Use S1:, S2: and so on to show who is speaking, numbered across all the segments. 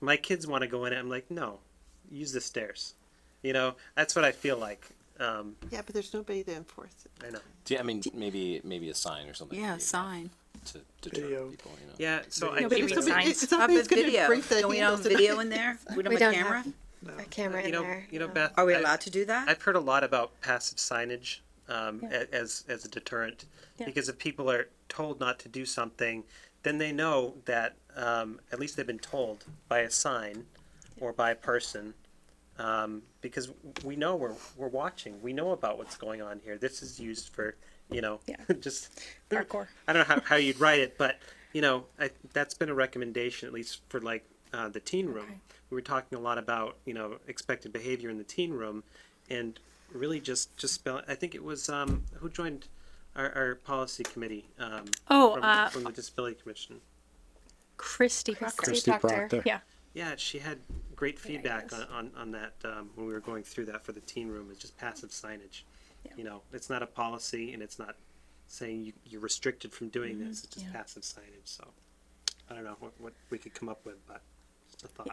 S1: my kids want to go in it. I'm like, no, use the stairs. You know, that's what I feel like. Um,
S2: Yeah, but there's nobody to enforce it.
S1: I know.
S3: Do you- I mean, maybe maybe a sign or something.
S4: Yeah,
S3: would be
S4: sign.
S3: enough To deter
S5: Video.
S3: people, you know.
S1: Yeah. So I
S4: No,
S2: but
S4: but
S1: think
S2: if
S4: we
S1: that-
S2: somebody-
S4: sign
S2: if
S4: up
S2: somebody's
S4: a
S2: gonna
S4: video.
S2: break that
S4: Don't we
S2: hand
S4: have
S2: open-
S4: video in there? We don't have
S6: We
S4: a
S6: don't
S4: camera?
S6: have a camera
S1: you
S6: in
S1: know,
S6: there.
S1: you know,
S6: no.
S1: Beth.
S4: Are we
S1: I-
S4: allowed to do that?
S1: I've heard a lot about passive signage um, a- as as a deterrent, because if people are told not to do something, then they know that um, at least they've been told by a sign or by a person, um, because we know we're we're watching. We know about what's going on here. This is used for you know
S7: Yeah.
S1: just
S7: Hardcore.
S1: I don't know how, how you'd write it, but you know I, that's been a recommendation at least for like uh, the teen room. We were talking a lot about you know expected behavior in the teen room, and really just just spell. I think it was um, who joined our, our policy committee. Um,
S7: Oh,
S1: from,
S7: uh,
S1: from the disability commission.
S7: Christy Proctor.
S6: Christy Proctor.
S7: Yeah.
S1: Yeah, she had great feedback on,
S7: yes.
S1: on, on that um, when we were going through that for the teen room. It's just passive signage. You know, it's not a policy, and it's not saying you, you're restricted from doing
S4: Mm-hmm.
S1: this. It's just passive signage. So I don't know what, what we could come up with, but just a thought.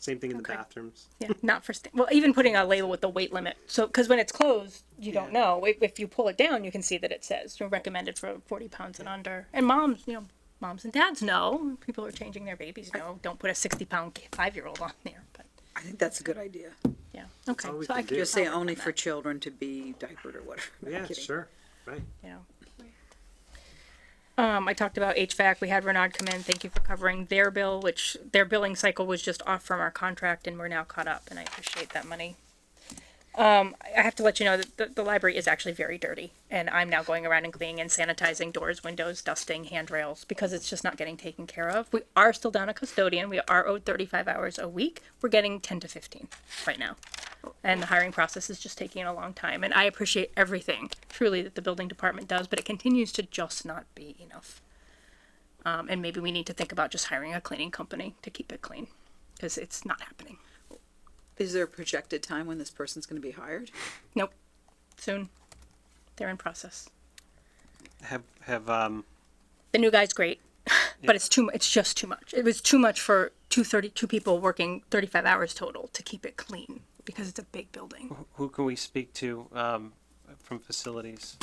S1: Same thing in the bathrooms.
S7: Yeah, not for sta- well, even putting a label with the weight limit. So, because when it's closed, you don't
S1: Yeah.
S7: know. If, if you pull it down, you can see that it says you know, recommended for 40 pounds and under. And moms, you know, moms and dads know. People are changing their babies. know, don't put a 60 pound five year old on there. But
S4: I think that's a good idea.
S7: yeah, okay.
S1: all we
S7: So I
S1: can
S7: could
S1: do.
S4: Just
S7: just
S4: say only for children to be diapered or whatever. No, I'm
S1: Yeah,
S4: kidding.
S1: sure. Right.
S7: you know. Um, I talked about HVAC. We had Renard come in. Thank you for covering their bill, which their billing cycle was just off from our contract, and we're now caught up, and I appreciate that money. Um, I- I have to let you know that the, the library is actually very dirty, and I'm now going around and cleaning and sanitizing doors, windows, dusting handrails because it's just not getting taken care of. We are still down a custodian. We are owed 35 hours a week. We're getting 10 to 15 right now and the hiring process is just taking a long time. And I appreciate everything truly that the building department does, but it continues to just not be enough. Um, and maybe we need to think about just hiring a cleaning company to keep it clean because it's not happening.
S4: Is there a projected time when this person's gonna be hired?
S7: Nope. Soon. They're in process.
S1: Have have um.
S7: The new guy's great, but it's too. mu- It's just too much. It was too much for two thirty two people working thirty five hours total to keep it clean because it's a big building.
S1: Who can we speak to um, from facilities?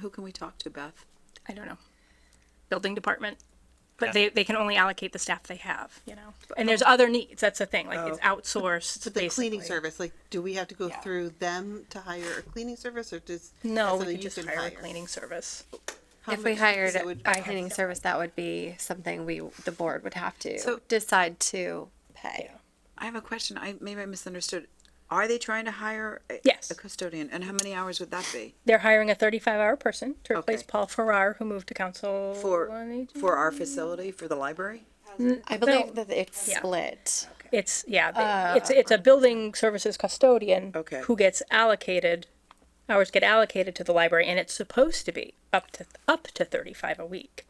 S4: Who can we talk to, Beth?
S7: I don't know, building department. But they, they can only allocate the staff they have, you know. And there's other needs. That's the thing. Like it's outsourced.
S2: But the cleaning
S7: basically.
S2: service, like, do we have to go
S7: Yeah.
S2: through them to hire a cleaning service or just?
S7: No,
S2: something
S7: we
S2: you
S7: could just
S2: can
S7: hire a cleaning service.
S2: How
S6: If we
S2: much-
S6: hired
S2: that would-
S6: a cleaning service, that would be something we, the board would have to decide to pay.
S4: I have a question. I, maybe I misunderstood. Are they trying to hire a,
S7: Yes.
S4: a custodian? And how many hours would that be?
S7: They're hiring a 35 hour person to replace
S4: Okay.
S7: Paul Farrar, who moved to council on
S4: For,
S7: Aging.
S4: for our facility, for the library?
S6: I believe that it's
S7: Yeah.
S6: split.
S7: It's yeah, they- it's it's a building services custodian
S4: Okay.
S7: who gets allocated hours get allocated to the library and it's supposed to be up to up to 35 a week.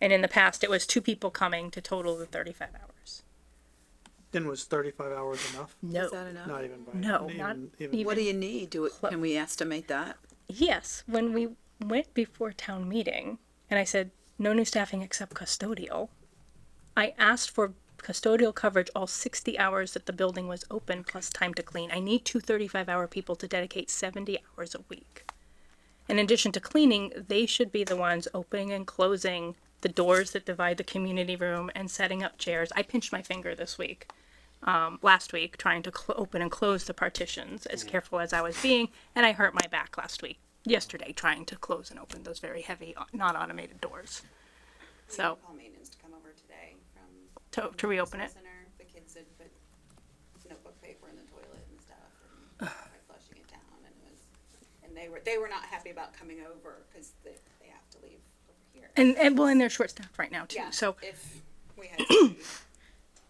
S7: And in the past it was two people coming to total the 35 hours.
S5: And was thirty-five hours enough?
S7: No.
S4: Is that enough?
S5: Not even by.
S7: No, not even-
S4: What do you need? Do, it- can we estimate that?
S7: Yes, when we went before town meeting and I said no new staffing except custodial, I asked for custodial coverage all 60 hours that the building was open plus time to clean. I need two 35 hour people to dedicate 70 hours a week. In addition to cleaning, they should be the ones opening and closing the doors that divide the community room and setting up chairs. I pinched my finger this week, um, last week, trying to cl- open and close the partitions as careful as I was being, and I hurt my back last week, yesterday, trying to close and open those very heavy, uh, not automated doors. So,
S8: call maintenance to come over today from
S7: to, to reopen
S8: the
S7: it.
S8: center. The kids had put notebook paper in the toilet and stuff and tried flushing it down and it was, and they were, they were not happy about coming over because they, they have to leave over here.
S7: And, and well, and they're short staffed right now, too.
S8: Yeah,
S7: So,
S8: If we had to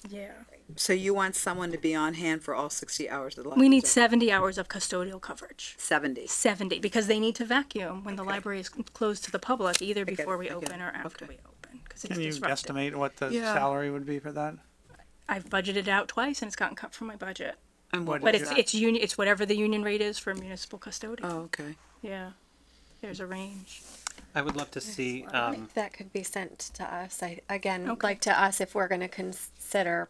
S7: yeah.
S4: So you want someone to be on hand for all sixty hours of the library?
S7: We need 70 hours of custodial coverage.
S4: Seventy.
S7: 70 because they need to vacuum when the library is closed to the public either
S4: get it,
S7: before we
S4: I get
S7: open
S4: it.
S7: or after
S4: Okay.
S7: we open because it's
S5: Can you
S7: disruptive.
S5: estimate what the
S4: Yeah.
S5: salary would be for that?
S7: I've budgeted out twice and it's gotten cut from my budget.
S4: And what
S7: But
S4: was
S7: it's
S4: that?
S7: it's union it's whatever the union rate is for municipal custodian.
S4: Oh, okay.
S7: Yeah. There's a range.
S1: I would love to see.
S6: I
S1: Um,
S6: think that could be sent to us. I, again,
S7: Okay.
S6: like to us, if we're gonna consider